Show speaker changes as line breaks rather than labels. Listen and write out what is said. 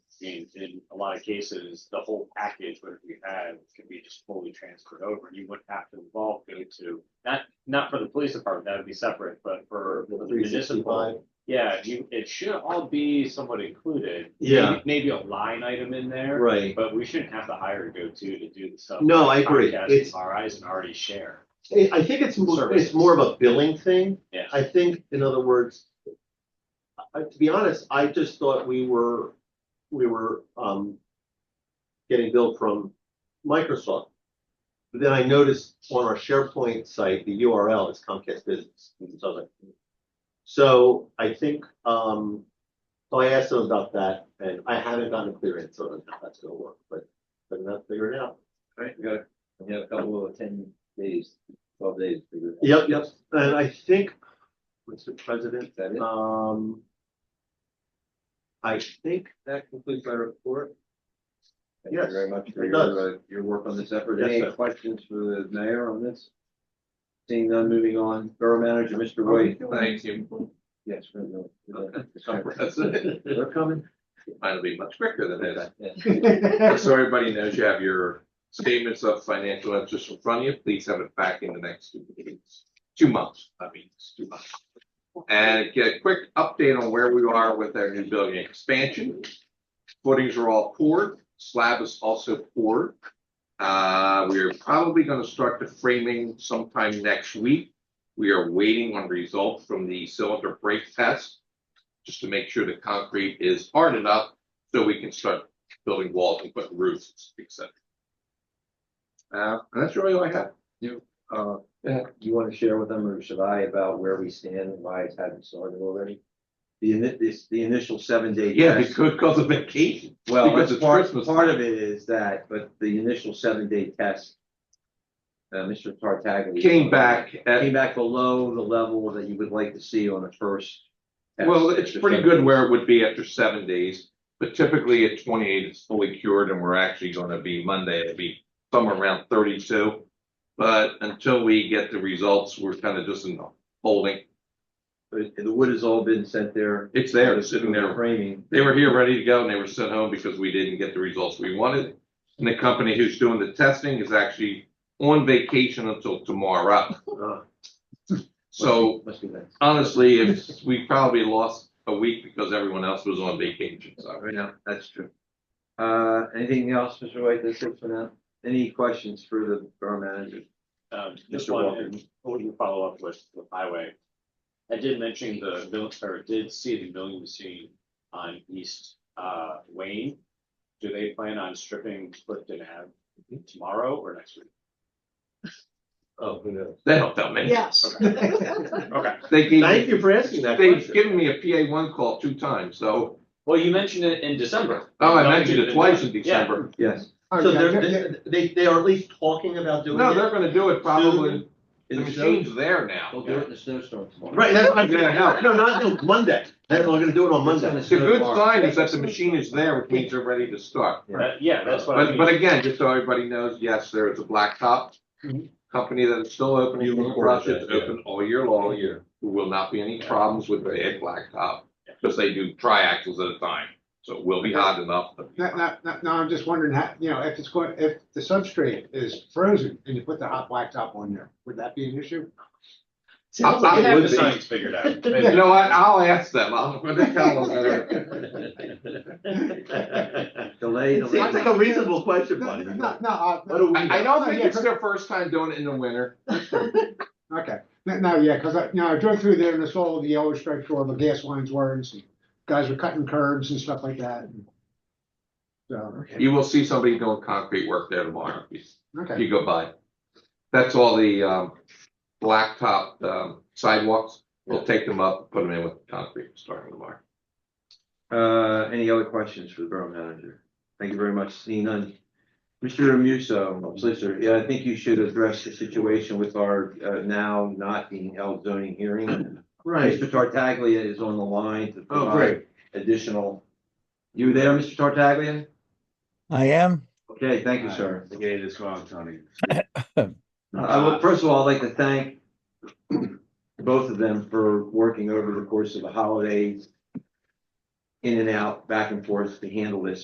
I mean, in a lot of cases, the whole package, whatever you had, could be just fully transferred over, and you wouldn't have to involve go to. Not, not for the police department, that would be separate, but for for the municipal, yeah, you, it should all be somewhat included.
Yeah.
Maybe- Maybe a line item in there,
Right.
but we shouldn't have to hire a go-to to do the stuff.
No, I agree.
Comcast
It's,
and RIs and already share.
I I think it's more, it's
Services.
more of a billing thing.
Yeah.
I think, in other words, I, to be honest, I just thought we were, we were, um, getting billed from Microsoft. But then I noticed on our SharePoint site, the URL is Comcast Business. and so I was like, So I think, um, so I asked them about that and I haven't gotten a clear answer on how that's gonna work, but, but i will figure it out.
Right, we got, a- we got a couple of ten days, twelve days. to figure it
Yep,
out.
yep, and I think, Mr. President,
Is that it?
um. I think,
That concludes my report. Thank
Yes,
you very much for
it
your, uh, your work on this effort.
Yes,
Any
sir.
questions for the mayor on this? Seeing none, moving on, Borough Manager, Mr. Roy.
Thank you.
Yes. we're going.
Impressive.
They're coming.
Mine will be much quicker than this.
Yeah.
So everybody knows you have your statements of financial interest in front of you. Please have it back in the next two weeks, two months, I mean, it's two months. And get a quick update on where we are with our new building expansion. Footings are all poured, slab is also poured. Uh, we are probably gonna start the framing sometime next week. We are waiting on results from the cylinder break test. Just to make sure the concrete is hard enough so we can start building walls and putting roofs, et cetera. Uh, and that's really all I have.
Uh, do you want to share with them or should I about where we stand and why it hasn't started already? The ini- this, the initial seven day.
Yeah,
test-
because because of vacation.
Well,
Because
that's
it's
part,
Christmas
part
time.
of it is that, but the initial seven day test. Uh, Mr. Tartaglia.
Came back
Came
at,
back below the level that you would like to see on the first. test.
well, it's pretty good where it would be after seven days. But typically at twenty-eight, it's fully cured and we're actually gonna be Monday, it'll be somewhere around thirty-two. But until we get the results, we're kind of just in holding.
But The wood has all been sent there.
It's there, it's sitting there.
Framing.
They were here ready to go and they were sent home because we didn't get the results we wanted. And the company who's doing the testing is actually on vacation until tomorrow.
uh,
So
Must be that.
honestly, if we probably lost a week because everyone else was on vacation, so.
Right now, that's true. Uh, anything else, Mr. White, that's it for now? Any questions for the borough manager?
Um, just
Mr.
one,
Walker.
and what we can follow up with, with highway. I did mention the, mill- or did see the milling machine on East, uh, Wayne. Do they plan on stripping Clifton Ave tomorrow or next week?
oh, who knows?
They don't tell me.
Yes.
Okay,
Thank
They gave,
you for asking that
they've
question.
given me a PA one call two times, so,
well, you mentioned it in December.
oh, I mentioned it
Yeah.
twice in December.
Yes.
So they're, they, they are at least talking about doing
Oh, No, they're
it.
gonna do it probably,
In
the
the snow,
machine's there
they'll
now.
do it in the snowstorm tomorrow.
Right, that's, what I'm-
Yeah,
no, no,
no.
not until Monday. They're gonna do it on Monday.
It's
The good
tomorrow.
sign is that the machine is there, which means they're ready to start.
That- Uh, yeah, that's what I
But,
mean.
but again, just so everybody knows, yes, there is a blacktop
Mhm.
company that is still open.
You
in
reported
Rush. It's
that, yeah.
open all year long. All year. There will not be any problems with the blacktop, because they do triaxles at a time, so it will be hot enough. but-
Now, now, now, now I'm just wondering how, you know, if it's going, if the substrate is frozen and you put the hot blacktop on there, would that be an issue?
I'll-
I
I'll-
have
would
the
be.
science figured out.
You know what? I'll ask them. I'll, I'm gonna tell them.
Delay,
It seems like
delay.
a reasonable question,
No,
buddy.
no, no, uh,
What do we
I, I don't think
Yeah,
it's their first time doing it in the winter.
okay, no, no, yeah, because I, you know, I drove through there and I saw all the yellow stripes where the gas lines were and some guys were cutting curbs and stuff like that. So,
You will see somebody doing concrete work there tomorrow.
okay,
you go by. That's all the um blacktop um sidewalks. We'll take them up, put them in with concrete starting tomorrow.
Uh, any other questions for the borough manager? Thank you very much, seeing none. Mr. Musso, solicitor, yeah, I think you should address the situation with our uh, now not being held zoning hearing.
Right,
Mr. Tartaglia is on the line to
Oh,
provide additional. You there, Mr. Tartaglia?
I am.
Okay, thank you, sir.
The gate is wrong, Tony.
I would, first of all, I'd like to thank both of them for working over the course of the holidays, in and out, back and forth to handle this.